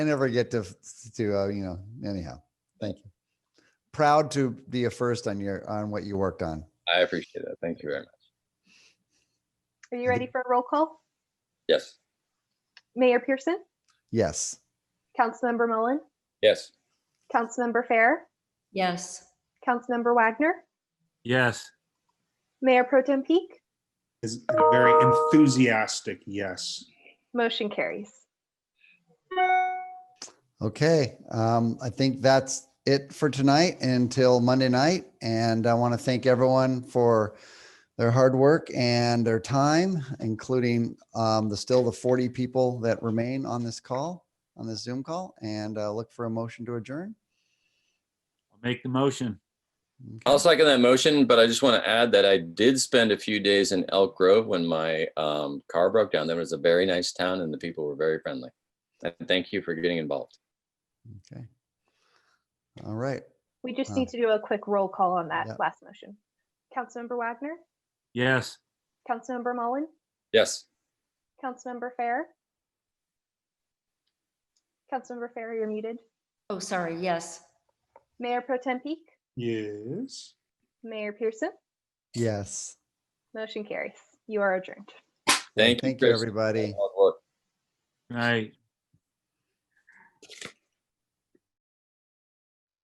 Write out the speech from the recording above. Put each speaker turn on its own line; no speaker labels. I never get to, to, uh, you know, anyhow, thank you. Proud to be a first on your, on what you worked on.
I appreciate that. Thank you very much.
Are you ready for a roll call?
Yes,
Mayor Pearson,
Yes.
Councilmember Mullen,
yes,
Councilmember Fair,
Yes,
Councilmember Wagner,
Yes,
Mayor Pro Tem Peak,
is a very enthusiastic yes.
motion carries.
Okay, um, I think that's it for tonight until Monday night. And I want to thank everyone for their hard work and their time, including um, the still the 40 people that remain on this call, on this Zoom call, and uh, look for a motion to adjourn.
I'll make the motion.
I'll second that motion, but I just want to add that I did spend a few days in Elk Grove when my um, car broke down. That was a very nice town and the people were very friendly. And thank you for getting involved.
Okay. All right.
We just
Wow.
need to do a quick roll call on that
Yep.
last motion. Councilmember Wagner,
Yes.
Councilmember Mullen,
Yes,
Councilmember Fair. Councilmember Fair, you're muted.
oh, sorry, yes.
Mayor Pro Tem Peak,
Yes.
Mayor Pearson,
Yes.
motion carries. You are adjourned.
thank you.
Thank you,
Chris.
everybody.
Well, well,
Right.